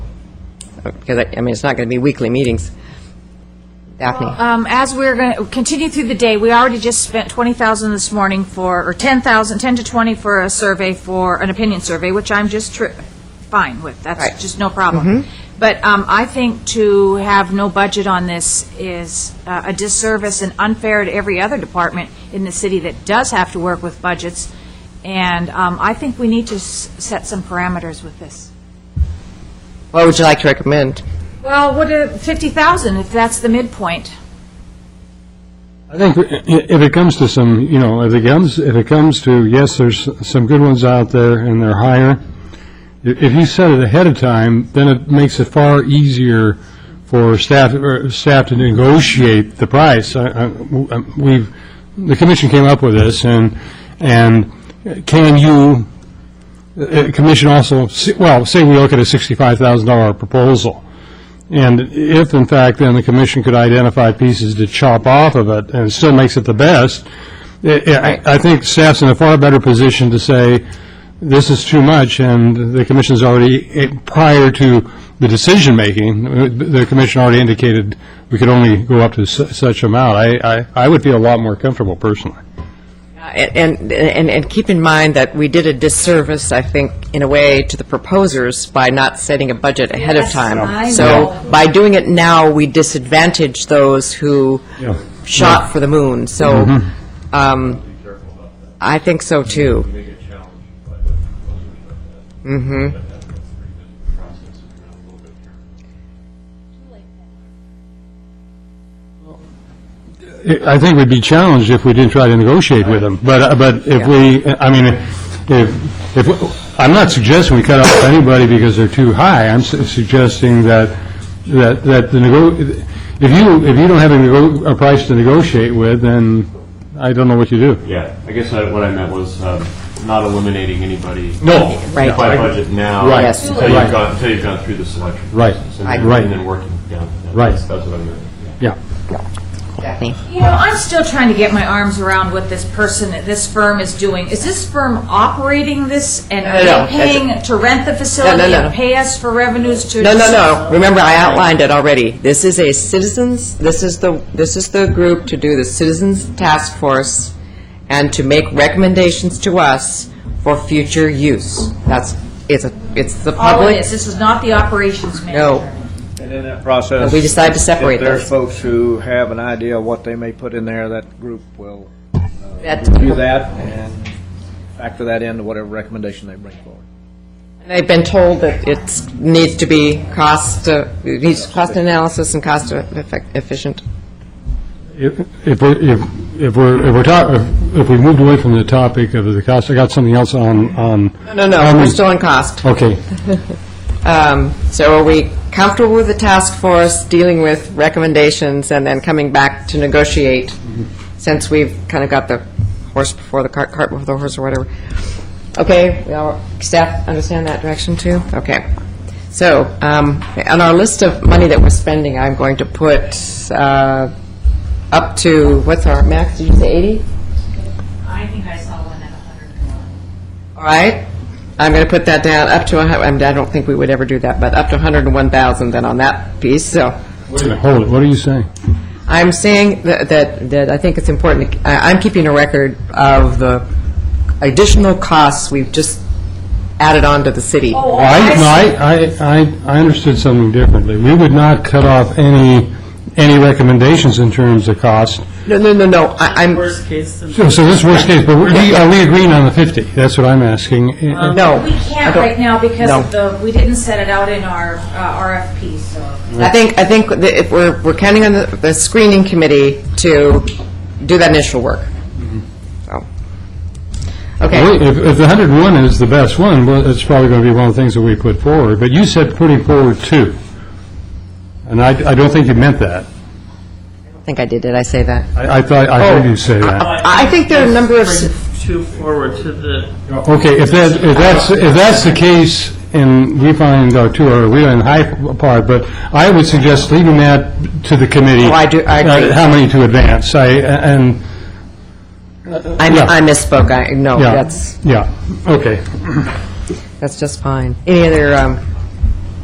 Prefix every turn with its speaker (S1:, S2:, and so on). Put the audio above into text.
S1: Because, I I mean, it's not going to be weekly meetings. Daphne?
S2: Um, As we're going to continue through the day, we already just spent 20,000 this morning for, or 10,000, 10 to 20 for a survey for, an opinion survey, which I'm just tr- fine with,
S1: Right.
S2: that's just no problem. But um, I think to have no budget on this is uh, a disservice and unfair to every other department in the city that does have to work with budgets, and um, I think we need to s- set some parameters with this.
S1: What would you like to recommend?
S2: Well, what, if- 50,000, if that's the midpoint.
S3: I think i- i- if it comes to some, you know, if it comes, if it comes to, yes, there's some good ones out there and they're higher, i- if you set it ahead of time, then it makes it far easier for staff, or staff to negotiate the price. I- I- w- um, We've, the commission came up with this and, and can you, uh, uh, commission also, s- well, say we look at a $65,000 proposal. And if, in fact, then the commission could identify pieces to chop off of it, and it still makes it the best, I- I I think staff's in a far better position to say, this is too much, and the commission's already, eh, prior to the decision-making, eh, the commission already indicated we could only go up to su- such amount. I I I would feel a lot more comfortable personally.
S1: Uh, And, and, and keep in mind that we did a disservice, I think, in a way, to the proposers by not setting a budget ahead of
S2: Yes,
S1: time.
S2: I know.
S1: So by doing it now, we disadvantage those who
S3: Yeah.
S1: shot for the moon. So
S2: Mm-hmm.
S1: um, I think so, too.
S3: I think we'd be challenged if we didn't try to negotiate with them, but, uh, but if we, I mean, if, if, I'm not suggesting we cut off anybody because they're too high, I'm su- suggesting that, that, that the nego, if you, if you don't have a nego, a price to negotiate with, then I don't know what you do.
S4: Yeah, I guess I- what I meant was um, not eliminating anybody.
S3: No.
S1: Right.
S4: By budget now.
S3: Right.
S1: Yes.
S4: Until you've
S3: Right.
S4: gone, until you've gone through the selection.
S3: Right.
S4: process
S3: I-
S4: And then,
S3: right.
S4: and then working down. Yeah,
S3: Right.
S4: That's that's what I meant.
S3: Yeah.
S1: Daphne?
S2: You know, I'm still trying to get my arms around what this person, this firm is doing. Is this firm operating this and are
S1: No, no,
S2: they paying to rent the
S1: No,
S2: facility
S1: no, no.
S2: and pay us for revenues to?
S1: No, no, no. Remember, I outlined it already. This is a citizens, this is the, this is the group to do the Citizens Task Force and to make recommendations to us for future use. That's, it's, a it's the
S2: All it
S1: public.
S2: is, Oh, this is not the operations manager.
S1: No,
S5: And in that process.
S1: But we decide to separate
S5: If there's
S1: those.
S5: folks who have an idea of what they may put in there, that group will
S1: That-
S5: do that and factor that into whatever recommendation they bring forward.
S1: They've been told that it needs to be cost, uh, it needs cost analysis and cost effect- efficient.
S3: If if we're, if if we're, if we're talk, if- if we moved away from the topic of the cost, I got something else on, on.
S1: No, no,
S3: on
S1: we're
S3: the-
S1: still on cost.
S3: Okay.
S1: Um, So are we comfortable with the task force dealing with recommendations and then coming back to negotiate, since we've kind of got the horse before the cart, cart before the horse or whatever? Okay, we all, staff understand that direction too? Okay. So, um, on our list of money that we're spending, I'm going to put uh, up to, what's our max, did you say 80?
S2: I think I saw one at 101.
S1: All right, I'm going to put that down, up to, a hun- I mean, I don't think we would ever do that, but up to 101,000 then on that piece, so.
S3: Wait a minute, hold it, what are you saying?
S1: I'm saying that, that that I think it's important, to- I- I'm keeping a record of the additional costs we've just added on to the city.
S2: Oh,
S3: Well, I, no,
S2: I see.
S3: I, I, I understood something differently. We would not cut off any, any recommendations in terms of cost.
S1: No, no, no, no, I- I'm,
S6: Worst case scenario.
S3: So so this worst case, but we- are we agreeing on the 50? That's what I'm asking.
S1: no.
S2: um, We
S1: I
S2: can't
S1: don't-
S2: right now because
S1: No.
S2: of the, we didn't set it out in our uh, RFP, so.
S1: I think, I think that if we're, we're counting on the the screening committee to do that initial work.
S2: Mm-hmm.
S1: So, Okay,
S3: Wait, If, if the 101 is the best one, well, it's probably going to be one of the things that we put forward, but you said putting forward two. And I, I don't think you meant that.
S1: I think I did, did I say that?
S3: I, I thought, I heard you say that.
S1: I I think there are a number of, s-
S6: Bring Two forward to the,
S3: Okay, if that, if that's, if that's the case, and we find our two are, we're in high part, but I would suggest leaving that to the committee.
S1: Oh, I do- I
S3: uh,
S1: agree.
S3: How many to advance, I, and,
S1: I
S3: Yeah.
S1: I misspoke, I, no,
S3: yeah.
S1: that's,
S3: Yeah, okay.
S1: that's just fine. Any other um,